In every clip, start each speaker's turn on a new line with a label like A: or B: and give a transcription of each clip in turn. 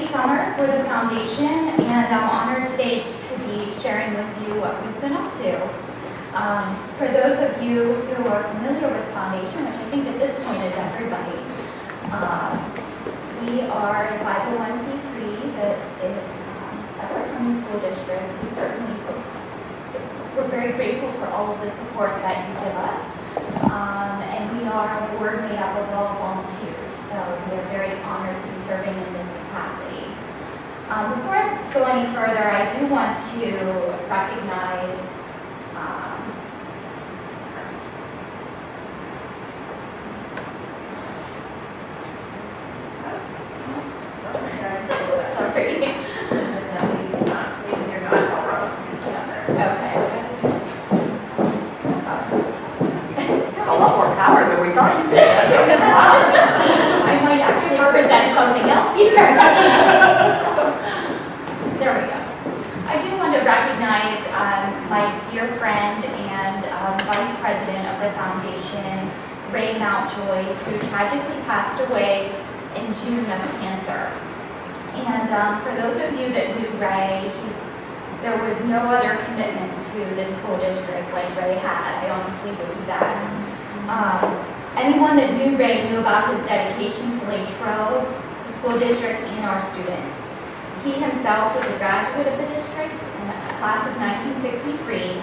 A: for the foundation, and I'm honored today to be sharing with you what we've been up to. Um, For those of you who are familiar with foundation, which I think at this point is everybody, uh, we are a 501c3 that is um, separate from the school district. We certainly, so- so we're very grateful for all of the support that you give us. Um, And we are a board made up of all volunteers, so we are very honored to be serving in this capacity. Um, Before I go any further, I do want to recognize um, sorry. Okay.
B: A lot more power than we thought you did.
A: I might actually present something else here. There we go. I do want to recognize um, my dear friend and um, vice president of the foundation, Ray Mountjoy, who tragically passed away in June of cancer. And um, for those of you that knew Ray, he- there was no other commitment to this school district like Ray had. I honestly believe that. Um, Anyone that knew Ray knew about his dedication to Latrobe, the school district, and our students. He himself was a graduate of the district in the class of 1963,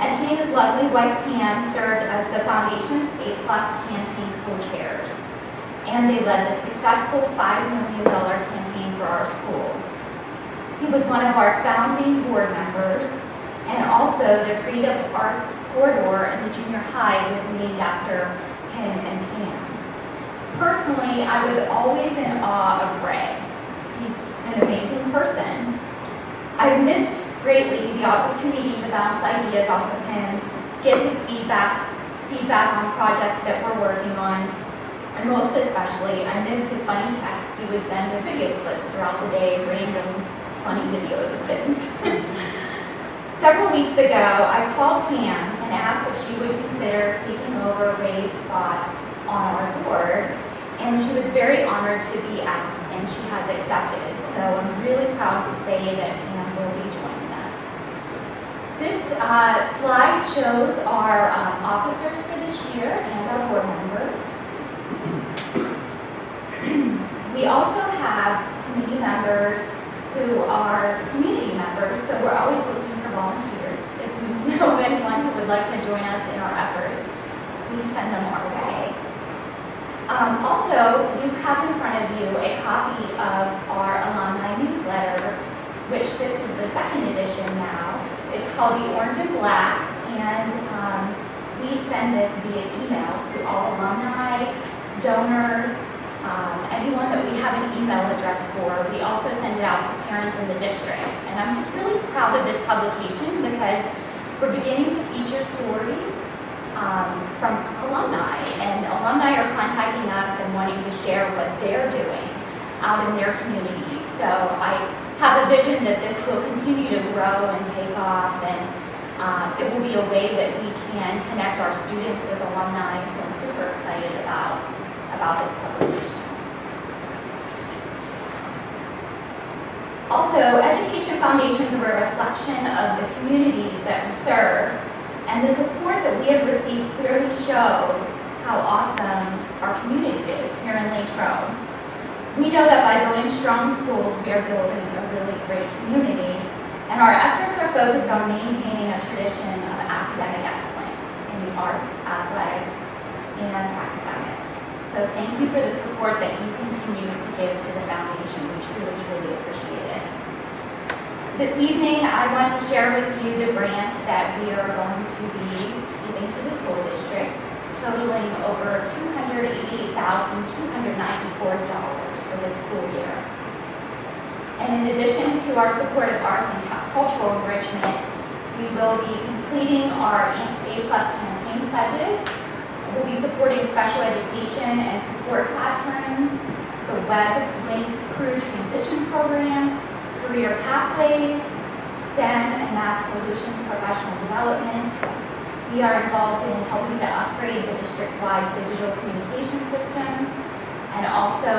A: and he and his lovely wife Pam served as the foundation's A-plus campaign co-chairs. And they led the successful $5 million campaign for our schools. He was one of our founding board members, and also the Freedom Arts Corridor in the junior high was named after him and Pam. Personally, I was always in awe of Ray. He's just an amazing person. I missed greatly the opportunity to bounce ideas off of him, get his feedback, feedback on projects that we're working on, and most especially, I miss his funny texts he would send with video clips throughout the day, random funny videos of things. Several weeks ago, I called Pam and asked if she would consider taking over Ray's spot on our board, and she was very honored to be asked, and she has accepted. So I'm really proud to say that Pam will be joining us. This uh, slide shows our um, officers for this year and our board members. We also have committee members who are community members, so we're always looking for volunteers. If you know of anyone who would like to join us in our efforts, please send them our way. Um, Also, you have in front of you a copy of our alumni newsletter, which this is the second edition now. It's called The Orange and Black, and um, we send this via email to all alumni, donors, um, anyone that we have an email address for. We also send it out to parents in the district. And I'm just really proud of this publication because we're beginning to feature stories um, from alumni. And alumni are contacting us and wanting to share what they're doing out in their communities. So I have a vision that this will continue to grow and take off and um, it will be a way that we can connect our students with alumni. So I'm super excited about about this publication. Also, education foundations were a reflection of the communities that we serve, and the support that we have received clearly shows how awesome our community is here in Latrobe. We know that by building strong schools, we are building a really great community, and our efforts are focused on maintaining a tradition of academic excellence in the arts, athletics, and academics. So thank you for the support that you continue to give to the foundation, we truly, truly appreciate it. This evening, I want to share with you the grants that we are going to be giving to the school district totaling over $288,294 for this school year. And in addition to our support of arts and cultural enrichment, we will be completing our A-plus campaign pledges We'll be supporting special education and support classrooms, the web link crew transition program, career pathways, STEM and math solutions professional development. We are involved in helping to upgrade the district-wide digital communication system and also